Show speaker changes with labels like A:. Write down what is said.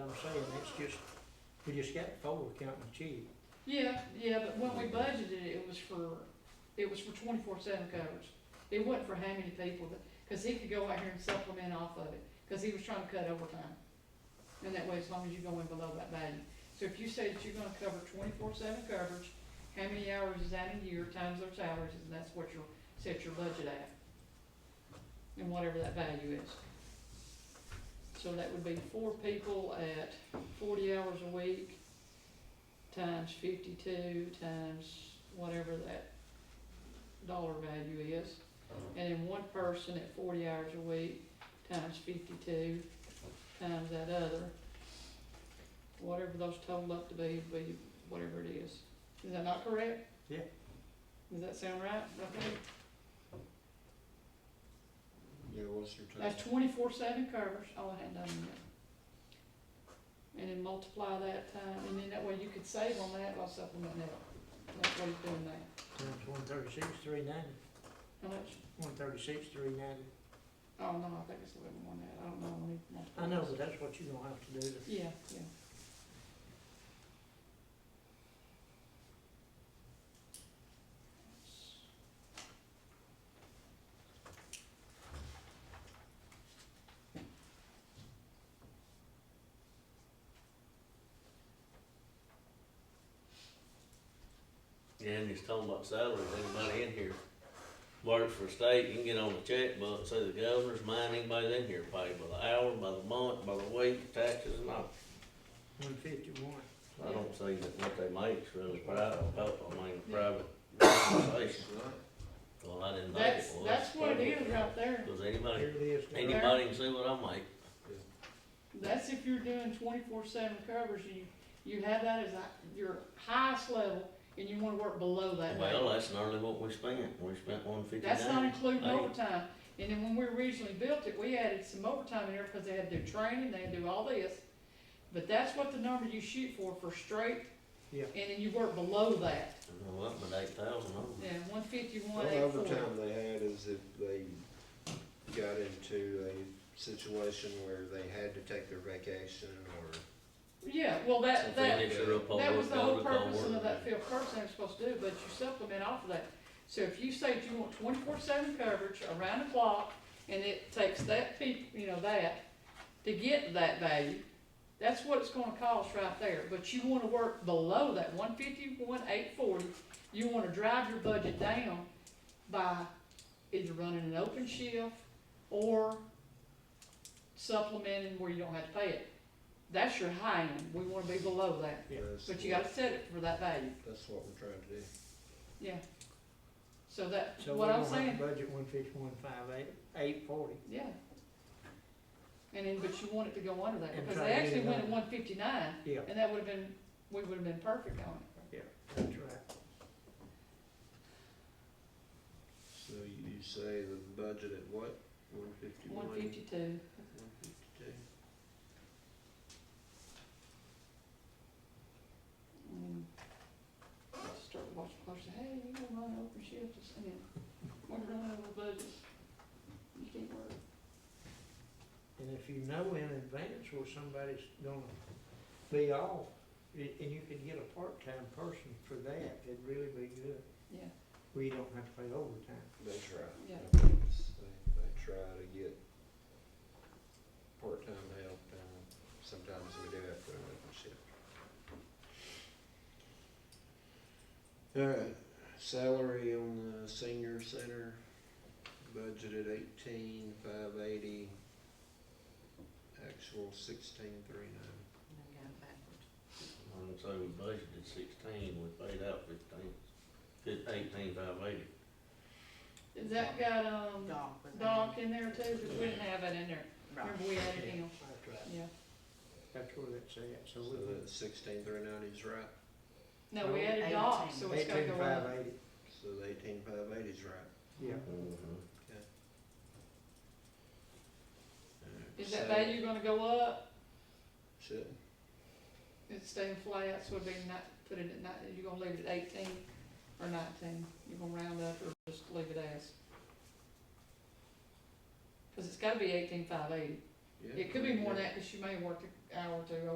A: saying, that's just, we just got four counting the chief.
B: Yeah, yeah, but when we budgeted it, it was for, it was for twenty-four seven coverage. It wasn't for how many people, but, cause he could go out here and supplement off of it, cause he was trying to cut overtime. And that way, as long as you go in below that value. So if you say that you're gonna cover twenty-four seven coverage, how many hours is that in a year times their salaries, and that's what your, set your budget at. And whatever that value is. So that would be four people at forty hours a week times fifty-two times whatever that dollar value is. And then one person at forty hours a week times fifty-two times that other. Whatever those total up to be, would be whatever it is. Is that not correct?
A: Yeah.
B: Does that sound right? Okay.
C: Yeah, what's your total?
B: That's twenty-four seven covers, all I had done yet. And then multiply that time, and then that way you could save on that by supplementing that. That's what he's doing now.
A: Times one thirty-six, three ninety.
B: How much?
A: One thirty-six, three ninety.
B: Oh, no, I think it's a little more than that, I don't know, when he
A: I know,
B: multiplies.
A: but that's what you're gonna have to do to
B: Yeah, yeah.
D: Yeah, and he's talking about salaries, everybody in here works for state, you can get on the checkbook, say the governor's, mine, anybody's in here paid by the hour, by the month, by the week, taxes and all.
A: one fifty-one.
D: I don't see that what they make's really private, I mean, private organization. Well, I didn't think it
B: That's,
D: was.
B: that's what it is right there,
D: Does anybody,
A: Here it is.
B: Any-
D: anybody can see what I make?
B: that's if you're doing twenty-four seven covers, you, you have that as a- your highest level, and you wanna work below that.
D: Well, that's nearly what we spent, we spent one fifty-nine.
B: That's not including overtime, and then when we originally built it, we added some overtime in there, cause they had to do training, they had to do all this. But that's what the number you shoot for, for straight.
A: Yeah.
B: And then you work below that,
D: Well, up eight thousand,
B: yeah, one fifty-one,
C: What
B: eight forty.
C: overtime they had is if they got into a situation where they had to take their vacation or
B: Yeah, well, that, that,
D: Finish her up on
B: That was
D: this
B: the whole
D: overtime
B: purpose of
D: work.
B: that fifth person they were supposed to do, but you supplement off of that. So if you say you want twenty-four seven coverage around the clock, and it takes that peop, you know, that, to get that value, that's what it's gonna cost right there, but you wanna work below that, one fifty, one eight forty, you wanna drive your budget down by either running an open shift or supplementing where you don't have to pay it. That's your high end, we wanna be below that.
A: Yeah,
C: that's
B: But you
C: what-
B: gotta set it for that value,
C: That's what we're trying to do.
B: yeah. So that,
A: So we're
B: what I'm
A: gonna have
B: saying,
A: to budget one fifty-one, five eight, eight forty.
B: yeah. And then, but you want it to go under that,
A: And
B: because
A: try
B: they
A: to get
B: actually
A: it
B: went at
A: under.
B: one fifty-nine,
A: Yeah,
B: and that would've been, we would've been perfect on it.
A: that's right.
C: So you you say the budget at what? One fifty-one?
B: One fifty-two,
C: One fifty-two.
B: and then start watching closer, hey, you gonna run open shift, this- and then, we're running over budget. You can't work,
A: And if you know in advance where somebody's gonna be off, a- and you could get a part-time person for that, it'd really be good.
B: yeah,
A: We don't have to pay overtime.
C: They try.
B: Yeah.
C: I think it's- They, they try to get part-time help and sometimes we do have to open shift. Alright, Uh, salary on the senior center, budgeted eighteen, five eighty. Actual sixteen, three nine.
D: And so we budgeted sixteen, we paid out fifteen, fif- eighteen five eighty.
B: is that got, um, Doc in there too, 'Cause we didn't have that in there, remember we added him,
A: That's right.
B: yeah.
A: That's where that's at,
B: Oh,
A: so
C: So
A: we'll.
C: that sixteen, three nine is right,
B: No, we added dogs, so it's gotta
A: Eighteen
B: go
A: five
B: up.
A: eighty,
C: so the eighteen, five eighty is right.
A: yeah.
D: Mm-hmm.
B: Is that
C: So-
B: value gonna go up?
C: Should,
B: It's staying flat, so it'd be not, put it at nine, you gonna leave it at eighteen or nineteen? You gonna round up or just leave it as? Cause it's gotta be eighteen five eighty.
C: yeah.
B: It could be more
C: yeah.
B: than that, cause you may work an hour or two